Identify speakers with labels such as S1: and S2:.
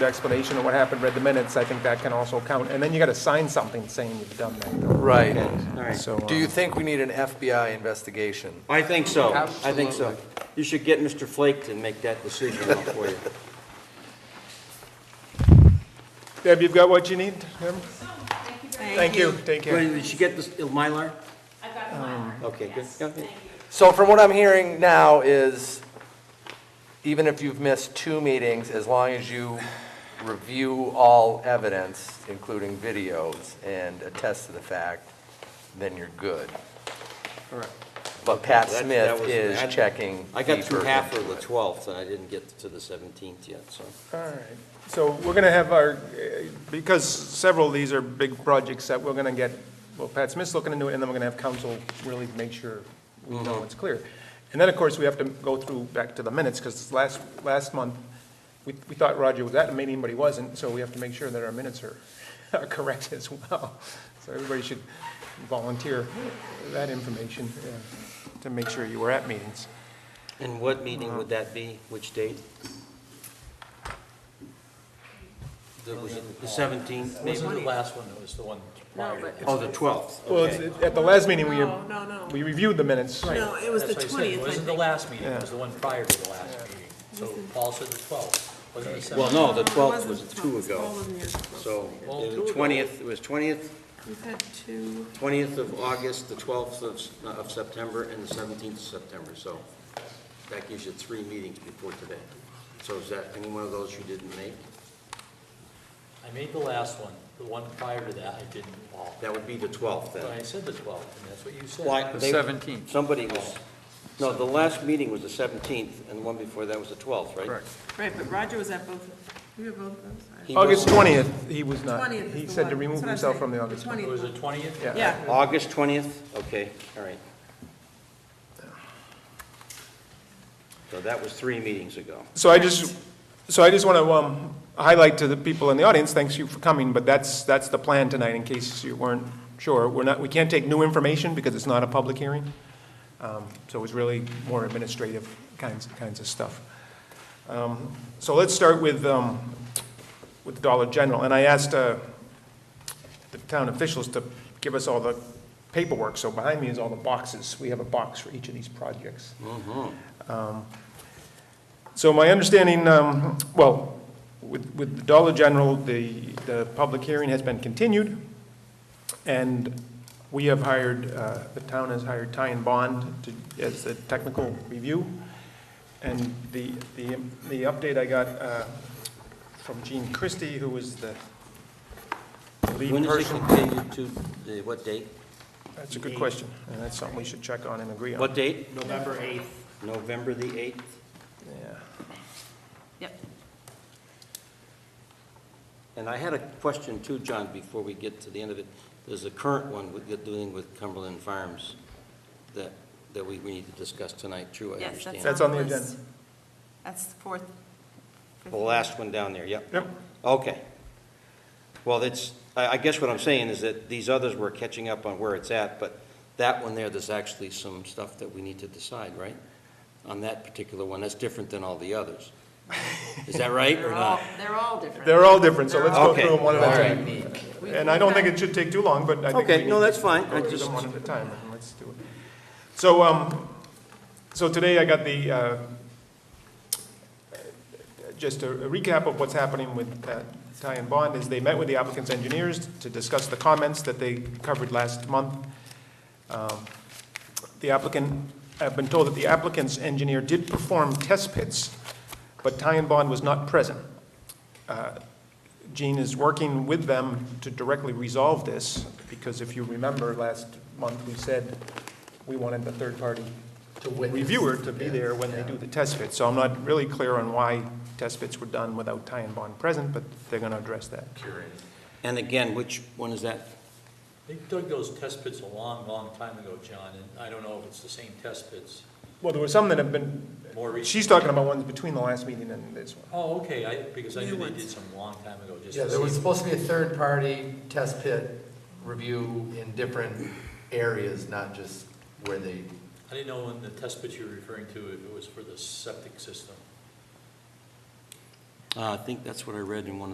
S1: explanation of what happened, read the minutes, I think that can also count. And then you got to sign something saying you've done that.
S2: Right.
S1: Right. So,
S2: Do you
S1: uh,
S2: think we need an FBI investigation?
S3: I think so. I think so. You should get Mr. Flake to make that decision for you.
S1: Deb, you've got what you need? Deb?
S4: Thank you very much.
S1: Thank you, take care.
S3: Wait, Did she get this, uh, Mylar? Um,
S4: I've got a Mylar.
S3: Okay, good.
S4: Yes,
S3: Yeah,
S4: thank
S3: yeah.
S4: you.
S2: So from what I'm hearing now is, even if you've missed two meetings, as long as you review all evidence, including videos, and attest to the fact, then you're good.
S3: Correct.
S2: But Pat
S3: That- that
S2: Smith
S3: was-
S2: is
S3: I-
S2: checking.
S3: I got through
S2: deeper
S3: half
S2: into
S3: of the
S2: it.
S3: 12th, and I didn't get to the 17th yet, so.
S1: All right, so we're going to have our, uh, because several of these are big projects that we're going to get, well, Pat Smith's looking into it, and then we're going to have council really make sure we know it's clear. And then, of course, we have to go through, back to the minutes, because last, last month, we, we thought Roger was at a meeting, but he wasn't, so we have to make sure that our minutes are, are correct as well. So everybody should volunteer that information uh, to make sure you were at meetings.
S3: And what meeting would that be? Which date? The was it the 17th, maybe?
S5: Wasn't the last one, it was the one prior to
S3: Oh, the 12th.
S1: Well,
S3: Okay.
S1: it's- at the last meeting, we,
S6: No, no, no.
S1: we reviewed the minutes.
S6: No, Oh, it was the
S5: That's why I said, it
S6: 20th, I
S5: wasn't the
S6: think.
S5: last meeting, it was the one prior to the last meeting. So Paul said the 12th, wasn't the 17th?
S3: Well, no, the
S6: No, it
S3: 12th
S6: wasn't
S3: was
S6: the
S3: two
S6: 12th. Paul
S3: ago.
S6: wasn't here.
S3: So
S5: Well,
S3: the
S5: two ago.
S3: 20th, it was 20th,
S6: You had two,
S3: 20th of August, the 12th of, s- of September, and the 17th of September, so that gives you three meetings before today. So is that any one of those you didn't make?
S5: I made the last one, the one prior to that, I didn't, Paul.
S3: That would be the 12th
S5: But
S3: then.
S5: I said the 12th, and that's what you said.
S3: Why- they-
S7: 17th.
S3: Somebody was, no, the last meeting was the 17th, and the one before that was the 12th, right?
S1: Correct.
S6: right, but Roger was at both, you were both, I'm sorry.
S3: He
S1: August
S3: wasn't-
S1: 20th, he was not.
S6: 20th is
S1: uh, He
S6: the
S1: said to
S6: one.
S1: remove
S6: That's what I'm
S1: himself
S6: saying.
S1: from the August.
S6: 20th.
S5: It was the 20th?
S1: Yeah.
S6: Yeah,
S3: August 20th? Okay, all right. So that was three meetings ago.
S1: So I just, so I just want to um, highlight to the people in the audience, thanks you for coming, but that's, that's the plan tonight, in case you weren't sure. We're not, we can't take new information because it's not a public hearing. Um, So it's really more administrative kinds, kinds of stuff. Um, So let's start with, um, with Dollar General. And I asked uh, the town officials to give us all the paperwork. So behind me is all the boxes. We have a box for each of these projects. So my understanding, um, well, with with the Dollar General, the, the public hearing has been continued, and we have hired, uh, the town has hired Ty and Bond to- as the technical review. And the, the the update I got uh, from Gene Christie, who was the lead
S3: When is it
S1: person.
S3: continued to, the- what date?
S1: That's a good question, and that's something we should check on and agree on.
S3: What date? November 8th. November the 8th?
S1: Yeah.
S4: Yep.
S3: And I had a question too, John, before we get to the end of it. There's a current one with, with dealing with Cumberland Farms that, that we, we need to discuss tonight, true, I
S4: Yes,
S3: understand.
S1: That's
S4: that's
S1: on the
S4: on the
S1: agenda.
S4: list. That's the fourth.
S3: The last one down there, yep.
S1: Yep.
S3: Okay. Well, it's, I, I guess what I'm saying is that these others were catching up on where it's at, but that one there, there's actually some stuff that we need to decide, right? On that particular one, that's different than all the others. Is that right or
S4: They're all,
S3: not?
S4: they're all different.
S1: They're all different, so let's go
S3: Okay.
S1: through them one at a time.
S4: We-
S1: And I don't think it should take too long, but I think.
S3: Okay,
S1: we
S3: no,
S1: need
S3: that's
S1: to
S3: fine.
S1: go
S3: I
S1: through
S3: just-
S1: them one at a time, and let's do it. So, um, so today I got the, uh, just a recap of what's happening with uh, Ty and Bond, is they met with the applicant's engineers to discuss the comments that they covered last month. Um, The applicant, I've been told that the applicant's engineer did perform test pits, but Ty and Bond was not present. Uh, Gene is working with them to directly resolve this, because if you remember, last month, we said we wanted the third-party reviewer to be there when they do the test fit. So I'm not really clear on why test fits were done without Ty and Bond present, but they're going to address that.
S3: And again, which one is that?
S5: They dug those test pits a long, long time ago, John, and I don't know if it's the same test pits.
S1: Well, there were some that have been,
S5: More recent.
S1: she's talking about ones between the last meeting and this one.
S5: Oh, okay, I, because I knew they did some long time ago, just.
S7: Yeah,
S5: to
S7: there was
S5: see-
S7: supposed to be a third-party test pit review in different areas, not just where they,
S5: I didn't know when the test pits you were referring to, if it was for the septic system.
S3: Uh, I think that's what I read in one of